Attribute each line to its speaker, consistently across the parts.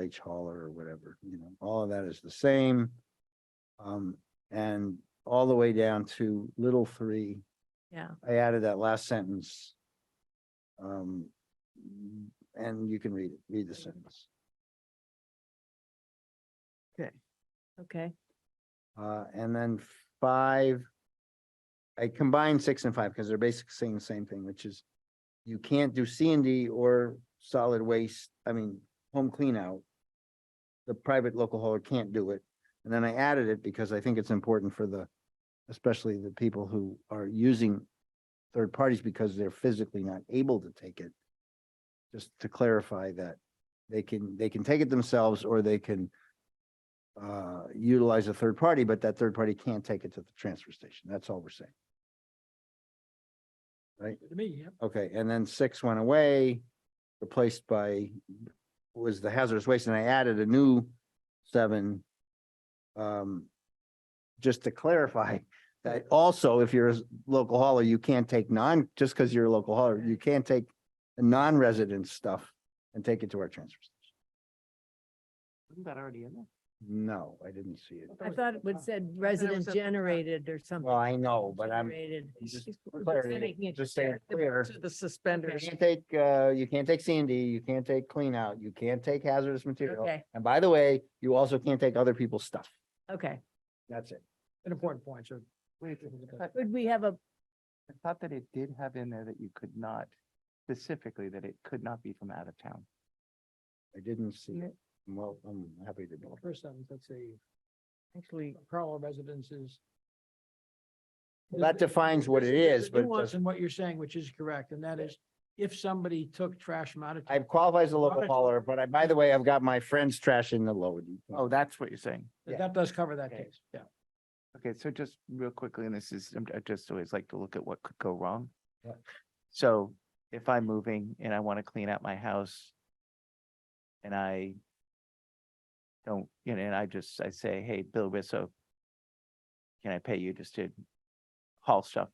Speaker 1: H hauler or whatever, you know, all of that is the same. Um, and all the way down to little three,
Speaker 2: Yeah,
Speaker 1: I added that last sentence. Um, and you can read it, read the sentence.
Speaker 2: okay,
Speaker 1: Uh, and then five. I combined six and five because they're basically saying the same thing, which is you can't do C and D or solid waste, I mean, home clean out. The private local hauler can't do it. And then I added it because I think it's important for the, especially the people who are using third parties because they're physically not able to take it. Just to clarify that they can, they can take it themselves or they can uh, utilize a third party, but that third party can't take it to the transfer station. That's all we're saying.
Speaker 3: To me, yeah.
Speaker 1: Okay, and then six went away, replaced by, was the hazardous waste, and I added a new seven. Um, just to clarify, that also, if you're a local hauler, you can't take non, just because you're a local hauler, you can't take non-resident stuff and take it to our transfer station.
Speaker 3: Isn't that already in there?
Speaker 1: No, I didn't see it.
Speaker 2: I thought it would said
Speaker 3: was
Speaker 2: resident
Speaker 3: up-
Speaker 2: generated or something.
Speaker 1: Well, I know, but I'm
Speaker 2: Generated.
Speaker 1: just
Speaker 2: She's-
Speaker 1: for
Speaker 2: we're
Speaker 1: clarity,
Speaker 2: making it
Speaker 1: just saying clear.
Speaker 2: clear.
Speaker 3: To the
Speaker 1: You
Speaker 3: suspenders.
Speaker 1: can't take, uh, you can't take C and D, you can't take clean out, you can't take hazardous material.
Speaker 2: Okay,
Speaker 1: And by the way, you also can't take other people's stuff.
Speaker 2: okay.
Speaker 1: That's it.
Speaker 3: An important point, so.
Speaker 4: Wait, I
Speaker 2: Would we have a,
Speaker 4: I thought that it did have in there that you could not, specifically that it could not be from out of town.
Speaker 1: I didn't see it. Well, I'm happy to know.
Speaker 3: First sentence, let's see,
Speaker 2: actually,
Speaker 3: parallel residences.
Speaker 1: Well, that defines what it
Speaker 3: There's-
Speaker 1: is,
Speaker 3: there's a
Speaker 1: but it
Speaker 3: nuance
Speaker 1: doesn't-
Speaker 3: in what you're saying, which is correct, and that is if somebody took trash from out of.
Speaker 1: I
Speaker 3: town,
Speaker 1: qualify as a local hauler, but I, by the way, I've got my friend's trash in the load.
Speaker 4: Oh, that's what you're saying.
Speaker 3: that-
Speaker 1: yeah.
Speaker 3: That does cover that
Speaker 4: Okay.
Speaker 3: case, yeah.
Speaker 4: Okay, so just real quickly, and this is, I'm- I just always like to look at what could go wrong.
Speaker 1: Yeah.
Speaker 4: So if I'm moving and I want to clean out my house and I don't, you know, and I just, I say, hey, Bill Risso, can I pay you just to haul stuff?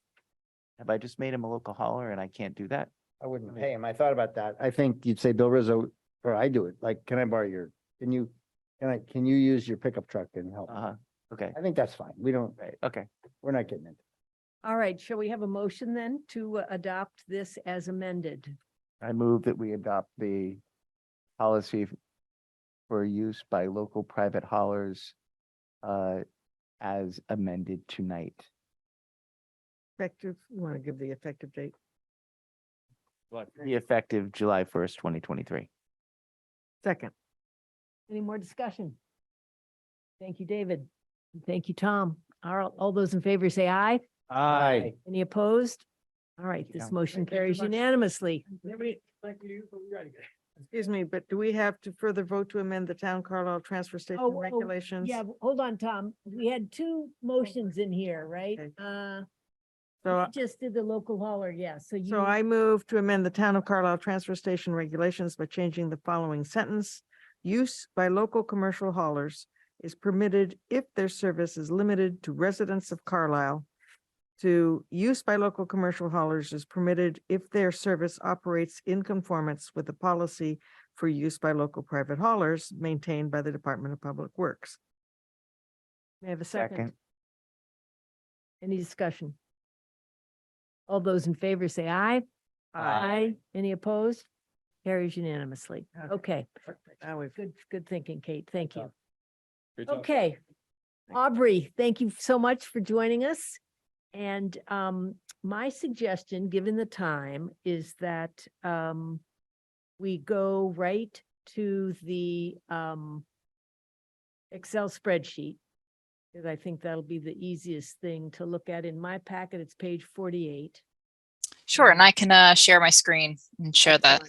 Speaker 4: Have I just made him a local hauler and I can't do that?
Speaker 1: I wouldn't
Speaker 4: Okay.
Speaker 1: pay him. I thought about that. I think you'd say, Bill Rizzo, or I do it. Like, can I borrow your, can you, can I, can you use your pickup truck and help?
Speaker 4: Uh huh, okay,
Speaker 1: I think that's fine. We don't,
Speaker 4: right, okay.
Speaker 1: we're not getting into.
Speaker 2: all right, shall we have a motion then to uh, adopt this as amended?
Speaker 4: I move that we adopt the policy f- for use by local private haulers uh, as amended tonight.
Speaker 5: Effective, you want to give the effective date?
Speaker 4: Be effective July first, twenty twenty-three.
Speaker 5: Second.
Speaker 2: Any more discussion? Thank you, David. And Thank you, Tom. All, all those in favor say aye.
Speaker 1: Aye.
Speaker 2: Any opposed? All right,
Speaker 4: Thank you,
Speaker 2: this
Speaker 4: Tom.
Speaker 2: motion
Speaker 3: Thank you very
Speaker 2: carries
Speaker 3: much.
Speaker 2: unanimously.
Speaker 3: Anybody, thank you, but we gotta get.
Speaker 5: Excuse me, but do we have to further vote to amend the town Carlisle transfer
Speaker 2: oh,
Speaker 5: station
Speaker 2: yeah,
Speaker 5: regulations?
Speaker 2: Yeah, but hold on, Tom. We had two motions in here, right?
Speaker 5: Oh, Okay.
Speaker 2: Uh,
Speaker 5: So, I-
Speaker 2: you just did the local hauler, yeah, so you.
Speaker 5: so I move to amend the town of Carlisle transfer station regulations by changing the following sentence. Use by local commercial haulers is permitted if their service is limited to residents of Carlisle. To use by local commercial haulers is permitted if their service operates in conformance with the policy for use by local private haulers maintained by the Department of Public Works.
Speaker 2: May I have a second? Any discussion? All those in favor say aye. Any opposed? Carries unanimously.
Speaker 5: Okay.
Speaker 2: Okay,
Speaker 5: Now we've.
Speaker 2: good, good thinking, Kate. Thank you.
Speaker 3: talk.
Speaker 2: Okay. Aubrey, thank you so much for joining us. And um, my suggestion, given the time, is that um, we go right to the um, Excel spreadsheet. Because I think that'll be the easiest thing to look at. In my packet, it's page forty-eight.
Speaker 6: Sure, and I can uh, share my screen and share that.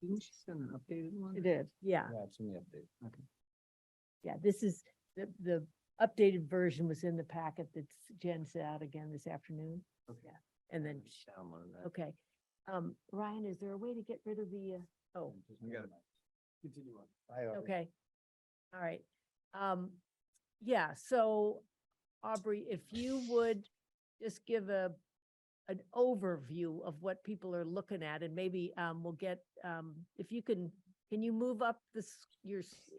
Speaker 4: Didn't she send an updated one?
Speaker 5: did.
Speaker 2: Yeah,
Speaker 1: Yeah, it's in the update.
Speaker 2: yeah, this is, the, the updated version was in the packet that Jen sent out again this afternoon. Yeah, and then Okay, um, Ryan, is there a way to get rid of the, uh, oh,
Speaker 3: Continue on.
Speaker 1: I already-
Speaker 2: okay. All right, um, yeah, so Aubrey, if you would just give a, an overview of what people are looking at and maybe, um, we'll get, um, if you can, can you move up this, your, s-